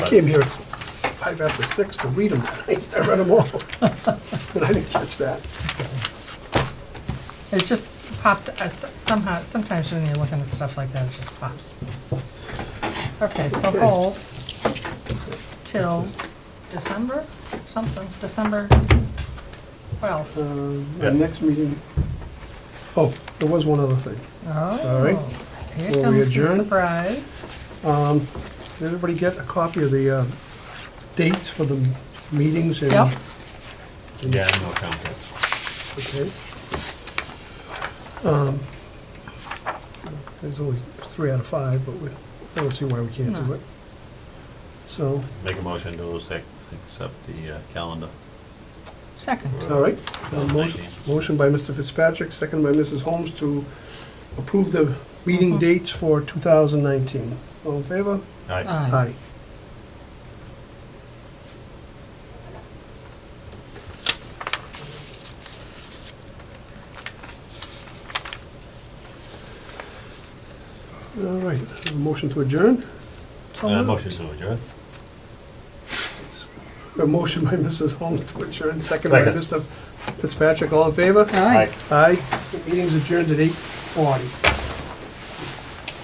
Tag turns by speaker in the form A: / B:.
A: came here at five after six to read them. I read them all. But I didn't catch that.
B: It just popped us somehow, sometimes when you're looking at stuff like that, it just pops. Okay, so
A: Okay.
B: hold till December, something, December 12th.
A: Um, Our next meeting, oh, there was one other thing. all right.
B: Oh, here
A: Will we
B: comes the
A: adjourn?
B: surprise.
A: Um, Did everybody get a copy of the uh, dates for the meetings? and-
B: Yep.
C: Yeah, no comment.
A: Okay. Um, There's only three out of five, but we, I don't see why we can't do
B: No.
A: it. So,
C: Make a motion to accept, accept the uh, calendar.
B: Second.
A: all right. Uh, Motion motion by Mr. Fitzpatrick, second by Mrs. Holmes to approve the meeting
B: Mhm.
A: dates for 2019. All in favor?
C: Aye.
B: Aye.
A: All right, a motion to adjourn.
B: So
C: Uh,
B: moved.
C: motion to adjourn.
A: A motion by Mrs. Holmes to adjourn, second by
C: Second.
A: Mr. Fitzpatrick, all in favor?
B: Aye.
A: Aye. The Meeting's adjourned at 8:40.